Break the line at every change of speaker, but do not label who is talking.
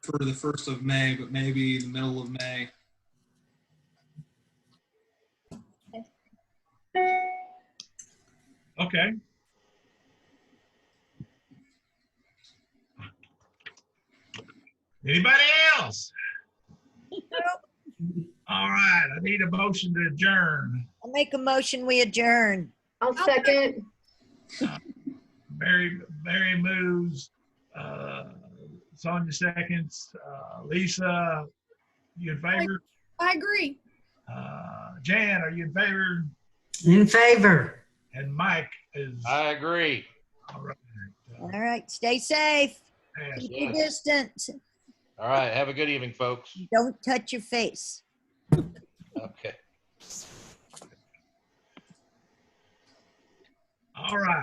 for the first of May, but maybe the middle of May.
Okay. Anybody else? All right, I need a motion to adjourn.
I'll make a motion, we adjourn.
I'll second.
Barry, Barry moves, uh, Sonia seconds, uh, Lisa, you in favor?
I agree.
Uh, Jan, are you in favor?
In favor.
And Mike is.
I agree.
All right. Uh,
All right, stay safe,
Pass.
keep your
Yes.
distance,
All right. Have a good evening, folks.
don't touch your face.
Okay.
All right.